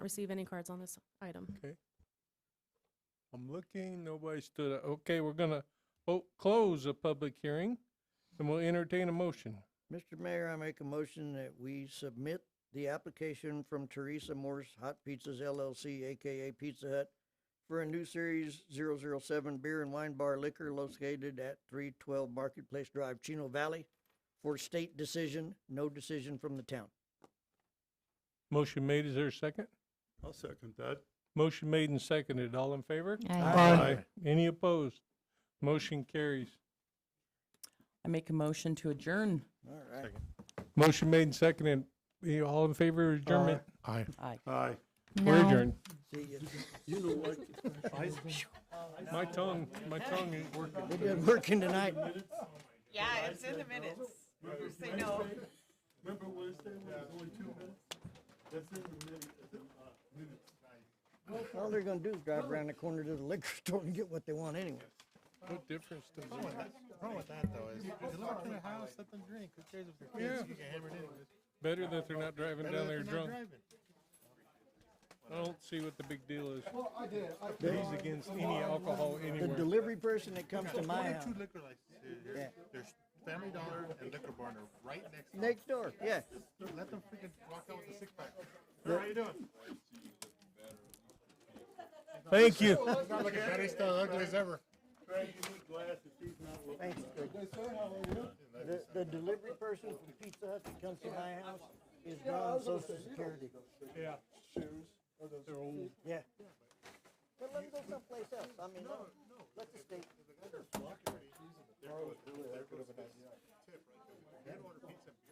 receive any cards on this item. Okay. I'm looking, nobody stood up. Okay, we're gonna, oh, close the public hearing and we'll entertain a motion. Mr. Mayor, I make a motion that we submit the application from Teresa Morse Hot Pizzas LLC, AKA Pizza Hut, for a new series 007 beer and wine bar liquor located at 312 Marketplace Drive, Chino Valley, for state decision, no decision from the town. Motion made, is there a second? I'll second that. Motion made and seconded, all in favor? Aye. Any opposed? Motion carries. I make a motion to adjourn. All right. Motion made and seconded, You all in favor of adjournment? Aye. Aye. Aye. We're adjourned. See you. You know what? I- My tongue, my tongue is working. It didn't working tonight. Yeah, it's in the minutes. Say no. Remember Wednesday when it was only two minutes? That's in the minute, it's in, uh, minutes. All they're gonna do is drive around the corner to the liquor store and get what they want anyway. What difference does it make? problem with that though is, if you live in the house, let them drink, who cares if they're kids, you can hammer it in. Better that they're not driving down there They're not drunk. driving. I don't see what the big deal is. He's against any alcohol The anywhere. delivery person that comes to One my or house, two liquor licenses here, there's Family Dollar and Liquor Barn are right next to it, next door, yeah. let them freaking walk out with a six pack. How you doing? Thank you. Not looking better, he's still ugly as ever. Craig, you need glasses, he's not looking. Thanks, Greg. The, the delivery person from Pizza Hut that comes to my house is on social security. Yeah. Shoes. They're old. Yeah. Well, let me go someplace else. I mean, let the state. They're good of an idea. Tip right there. They'd order pizza and beer.